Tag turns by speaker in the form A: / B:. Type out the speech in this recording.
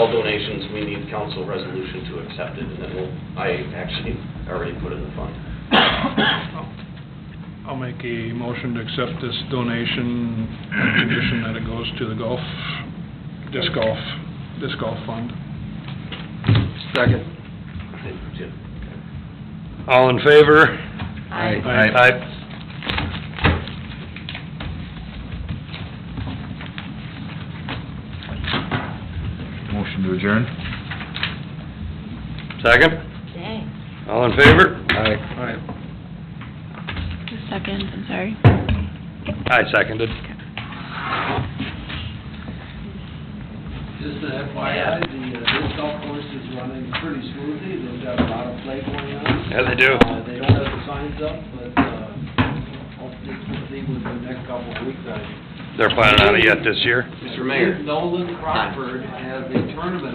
A: all donations, we need council resolution to accept it, and then we'll, I actually already put it in the fund.
B: I'll make a motion to accept this donation, on condition that it goes to the golf, disc golf, disc golf fund.
C: Second.
A: Did you-
D: All in favor?
C: Aye.
D: Aye.
C: Motion to adjourn?
D: Second?
E: Dang.
D: All in favor?
C: Aye.
B: Aye.
E: Second, I'm sorry.
D: I seconded.
F: Just an FYI, the uh, disc golf course is running pretty smoothly, they've got a lot of play going on.
D: Yeah, they do.
F: Uh, They don't have the signs up, but, uh, hopefully something within the next couple of weeks, I.
D: They're planning on it yet this year?
A: Mr. Mayor.
F: Nolan Crawford has a tournament